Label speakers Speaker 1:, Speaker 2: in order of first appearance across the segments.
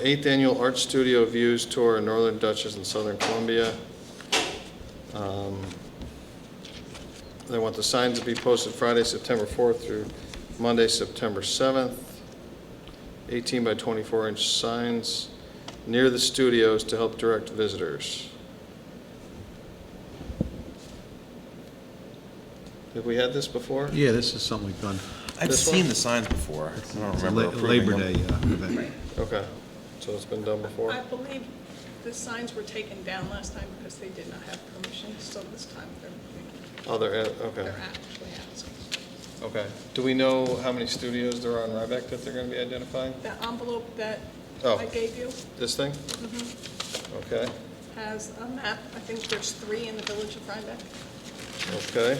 Speaker 1: Eighth Annual Art Studio Views Tour in Northern Dutchess and Southern Columbia. Um, They want the signs to be posted Friday, September 4th through Monday, September 7th. 18 by 24 inch signs near the studios to help direct visitors. Have we had this before?
Speaker 2: Yeah, this is something we've done.
Speaker 3: I've
Speaker 1: This
Speaker 3: seen
Speaker 1: one?
Speaker 3: the signs before. I don't
Speaker 2: It's a
Speaker 3: remember
Speaker 2: La-
Speaker 3: approving
Speaker 2: Labor
Speaker 3: them.
Speaker 2: Day uh, event.
Speaker 1: Okay, so it's been done before?
Speaker 4: I believe the signs were taken down last time because they did not have permission, so this time they're,
Speaker 1: Other, Oh, okay,
Speaker 4: they're actually asking.
Speaker 1: okay. Do we know how many studios there are in Rhinebeck that they're gonna be identifying?
Speaker 4: That envelope that
Speaker 1: Oh.
Speaker 4: I gave you
Speaker 1: This thing?
Speaker 5: Mm-hmm.
Speaker 1: Okay,
Speaker 4: has a map, I think there's three in the village of Rhinebeck.
Speaker 1: okay.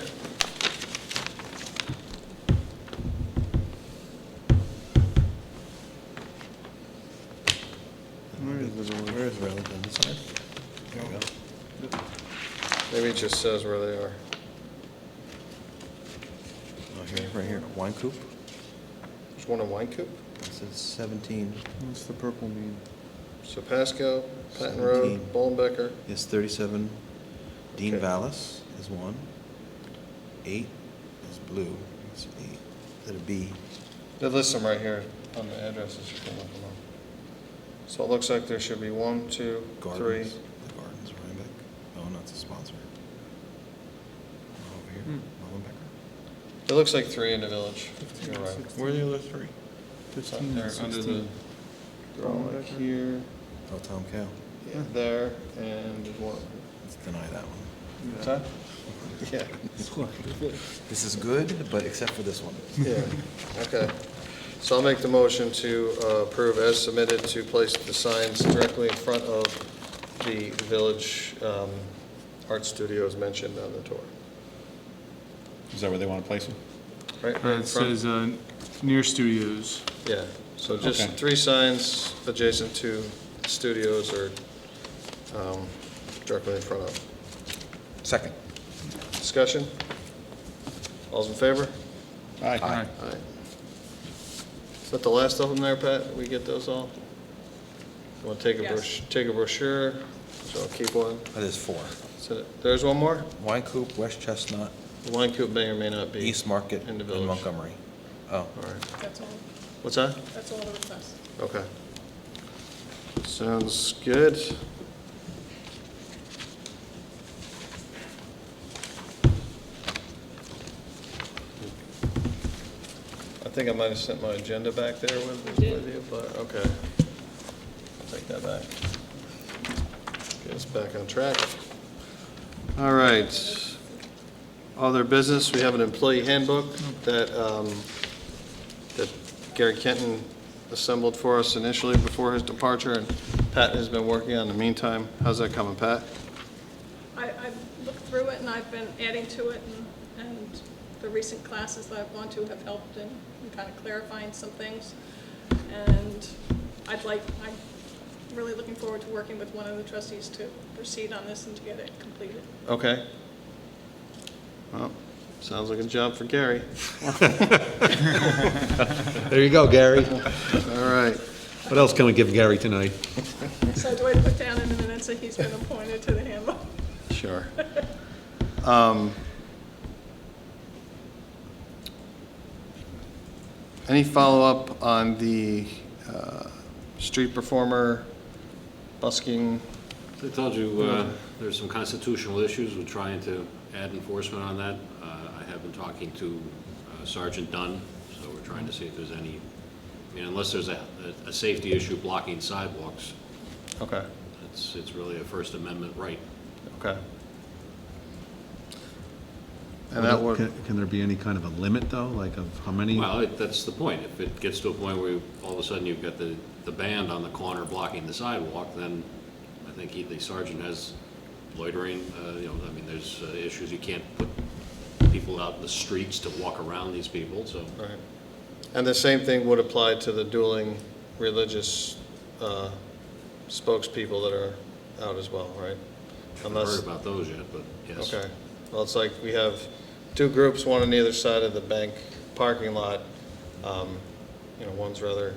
Speaker 3: Where is the, where is Rutland sign? There we go.
Speaker 1: Maybe it just says where they are.
Speaker 3: Oh, here, right here, Wine Coop.
Speaker 1: There's one in Wine Coop,
Speaker 3: It says seventeen,
Speaker 5: What's the purple mean?
Speaker 1: Sapasco, Patton Road,
Speaker 3: Seventeen.
Speaker 1: Bollenbecker,
Speaker 3: it's thirty-seven. Dean
Speaker 1: Okay.
Speaker 3: Vallis is one. Eight is blue. It's eight. Is it a B?
Speaker 1: They list them right here on the addresses, you can look them up. So it looks like there should be one, two, three.
Speaker 3: Gardens. The Gardens, Rhinebeck. Oh, no, it's a sponsor. Over here, Mullenbecker.
Speaker 1: It looks like three in the village. You're right.
Speaker 5: Where are
Speaker 3: the other three?
Speaker 1: It's not
Speaker 5: Fifteen
Speaker 1: there,
Speaker 5: and
Speaker 1: under the-
Speaker 5: sixteen.
Speaker 1: They're all like
Speaker 5: Bollenbecker.
Speaker 1: here,
Speaker 3: Oh, Tom Cow.
Speaker 1: yeah, there, and one.
Speaker 3: Let's deny that one.
Speaker 1: What's that? Yeah,
Speaker 3: This is good, but except for this one.
Speaker 1: yeah, okay. So I'll make the motion to uh, approve as submitted to place the signs directly in front of the village um, art studios mentioned on the tour.
Speaker 6: Is that where they want to place them?
Speaker 1: Right,
Speaker 5: Uh,
Speaker 1: right in
Speaker 5: It
Speaker 1: front.
Speaker 5: says, uh, near studios.
Speaker 1: Yeah, so just
Speaker 6: Okay.
Speaker 1: three signs adjacent to studios or um, directly in front of.
Speaker 3: Second.
Speaker 1: Discussion? All's in favor?
Speaker 6: Aye.
Speaker 5: Aye.
Speaker 1: Aye. Is that the last of them there, Pat? We get those all? You want to take a
Speaker 4: Yes.
Speaker 1: brochure, take a brochure, so I'll keep one.
Speaker 3: That is four.
Speaker 1: So There's one more?
Speaker 3: Wine Coop, West Chestnut,
Speaker 1: The Wine Coop may or may not be.
Speaker 3: East Market,
Speaker 1: In
Speaker 3: and
Speaker 1: the village.
Speaker 3: Montgomery. Oh,
Speaker 1: All right.
Speaker 4: That's all,
Speaker 1: What's that?
Speaker 4: that's all the requests.
Speaker 1: Okay. Sounds good. I think I might have sent my agenda back there with, with you, but, okay. I'll take that back. Get us back on track. All right. Other business, we have an employee handbook that, um, that Gary Kenton assembled for us initially before his departure, and Pat has been working on in the meantime. How's that coming, Pat?
Speaker 4: I, I've looked through it and I've been adding to it and, and the recent classes that I've gone to have helped in kind of clarifying some things. And I'd like, I'm really looking forward to working with one of the trustees to proceed on this and to get it completed.
Speaker 1: Okay. Well, sounds like a job for Gary.
Speaker 2: There you go, Gary.
Speaker 1: All right.
Speaker 2: What else can we give Gary tonight?
Speaker 4: So do I put down in the minutes that he's been appointed to the handbook?
Speaker 1: Sure. Um, Any follow-up on the uh, street performer busking?
Speaker 7: I told you, uh, there's some constitutional issues with trying to add enforcement on that. Uh, I have been talking to uh, Sergeant Dunn, so we're trying to see if there's any, I mean, unless there's a, a- a safety issue blocking sidewalks,
Speaker 1: Okay.
Speaker 7: it's, it's really a First Amendment right.
Speaker 1: Okay. And that would,
Speaker 2: Can can there be any kind of a limit, though, like of how many?
Speaker 7: Well, it- that's the point. If it gets to a point where all of a sudden you've got the, the band on the corner blocking the sidewalk, then I think he- the sergeant has loitering, uh, you know, I mean, there's uh, issues. You can't put people out in the streets to walk around these people, so.
Speaker 1: right. And the same thing would apply to the dueling religious uh, spokespeople that are out as well, right?
Speaker 7: I've
Speaker 1: Unless,
Speaker 7: heard about those yet, but yes.
Speaker 1: okay. Well, it's like we have two groups, one on either side of the bank parking lot. Um, You know, one's rather